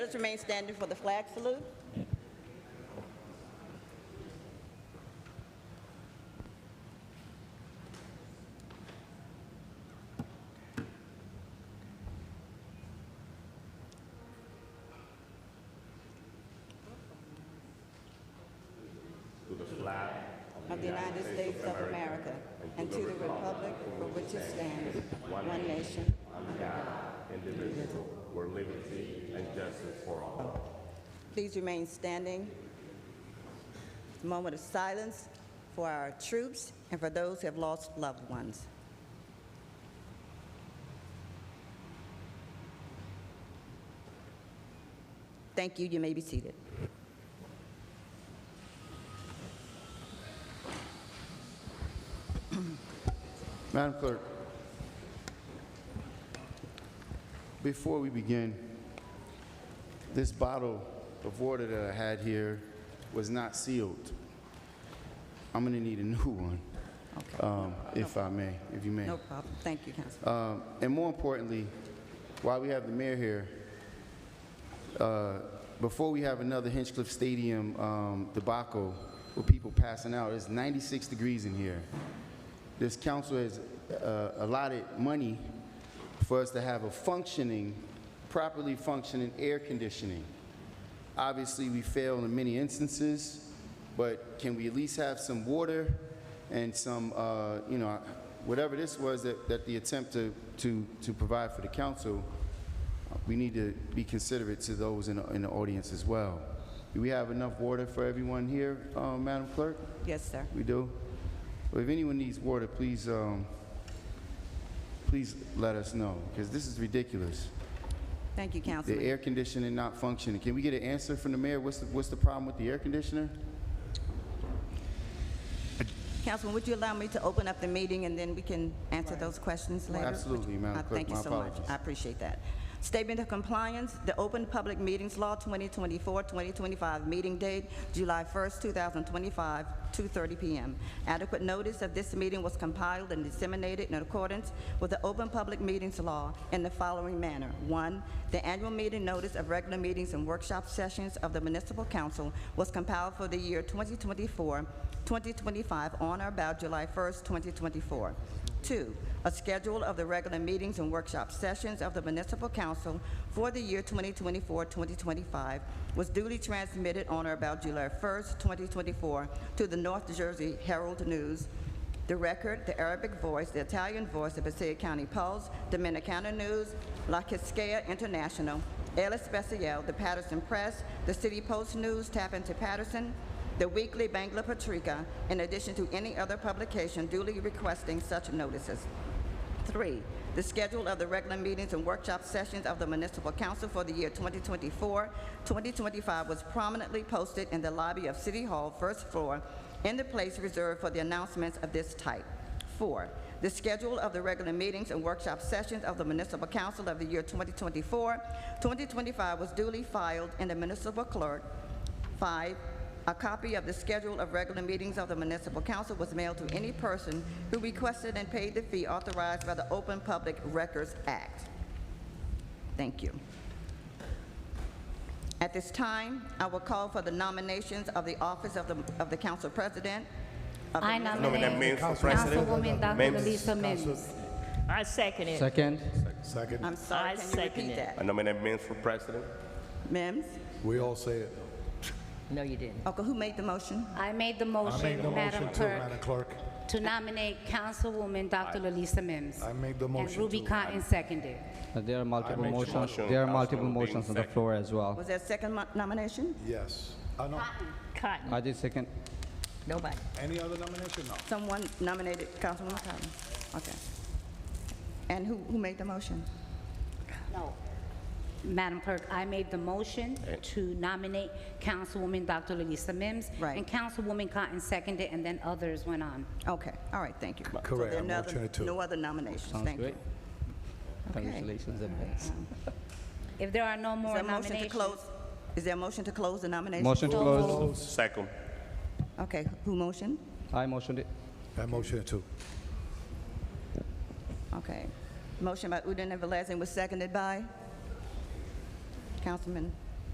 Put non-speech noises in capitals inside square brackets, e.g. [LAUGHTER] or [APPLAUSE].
Let's remain standing for the flag salute. Of the United States of America and to the republic for which it stands, one nation, individual, where liberty and justice for all. Please remain standing. Moment of silence for our troops and for those who have lost loved ones. Thank you. You may be seated. Madam Clerk, before we begin, this bottle of water that I had here was not sealed. I'm gonna need a new [LAUGHS] one, Okay. um, if I may, if you may. No problem. Thank you, Councilman. Um, And more importantly, while we have the mayor here, uh, before we have another Hinchcliffe Stadium um, debacle with people passing out, it's 96 degrees in here. This council has uh, allotted money for us to have a functioning, properly functioning air conditioning. Obviously, we fail in many instances, but can we at least have some water and some, uh, you know, whatever this was that, that the attempt to, to, to provide for the council, we need to be considerate to those in the, in the audience as well. Do we have enough water for everyone here, uh, Madam Clerk? Yes, sir. We do? Well, if anyone needs water, please, um, please let us know, because this is ridiculous. Thank you, The Councilman. air conditioning not functioning. Can we get an answer from the mayor? What's the, what's the problem with the air conditioner? Councilman, would you allow me to open up the meeting and then we can answer those questions later? Absolutely, Madam Uh, Clerk, Thank you my so much. apologies. I appreciate that. Statement of compliance, the Open Public Meetings Law 2024-2025 meeting date, July 1st, 2025, 2:30 p.m. Adequate notice of this meeting was compiled and disseminated in accordance with the Open Public Meetings Law in the following manner. One, the annual meeting notice of regular meetings and workshop sessions of the Municipal Council was compiled for the year 2024, 2025 on or about July 1st, 2024. Two, a schedule of the regular meetings and workshop sessions of the Municipal Council for the year 2024-2025 was duly transmitted on or about July 1st, 2024 to the North Jersey Herald News, The Record, The Arabic Voice, The Italian Voice, The Passaic County Pulse, Dominicana News, La Quisqueya International, El Especial, The Patterson Press, The City Post News, Tap into Patterson, the weekly Bangla Patrica, in addition to any other publication duly requesting such notices. Three, the schedule of the regular meetings and workshop sessions of the Municipal Council for the year 2024, 2025 was prominently posted in the lobby of City Hall, first floor, in the place reserved for the announcements of this type. Four, the schedule of the regular meetings and workshop sessions of the Municipal Council of the year 2024, 2025 was duly filed in the municipal clerk, Five, a copy of the schedule of regular meetings of the municipal council was mailed to any person who requested and paid the fee authorized by the Open Public Records Act. Thank you. At this time, I will call for the nominations of the office of the, of the council president. of the I municipal- Nominate nominate Mims for president. Councilwoman Dr. Mims. Lisa Mims. I second it. Second, Second. I'm sorry, I can you second repeat it. I that? nominate Mims for president. Mims? We all say it. No, you didn't. Okay, who made the motion? I made the I made the motion, Madam motion too, Madam Clerk, Clerk. to nominate Councilwoman Dr. Lalisa Mims. I made the And motion too. Ruby Cotton seconded. Uh, there are multiple make the motions, motion, there are multiple Councilman Dean motions on the second. floor as well. Was that second mo- nomination? Yes. Uh, I know. Cotton. I did second, Nobody. Any other nomination? No. Someone nominated Councilwoman Cotton? Okay. And who, who made the motion? No. Madam Clerk, I made the motion to nominate Councilwoman Dr. Lalisa Mims. Right. And Councilwoman Cotton seconded, and then others went on. Okay, all right, thank you. So Correct, there are I'm no other- alternate two. No other nominations, sounds thank you. great. Congratulations, advance. If there are no Is more there a motion to nominations. close? Is there a motion to close the nomination? Motion to close, Second. Okay, who motioned? I motioned it, I motion too. Okay. Motion by Udine and Velez and was seconded by Councilman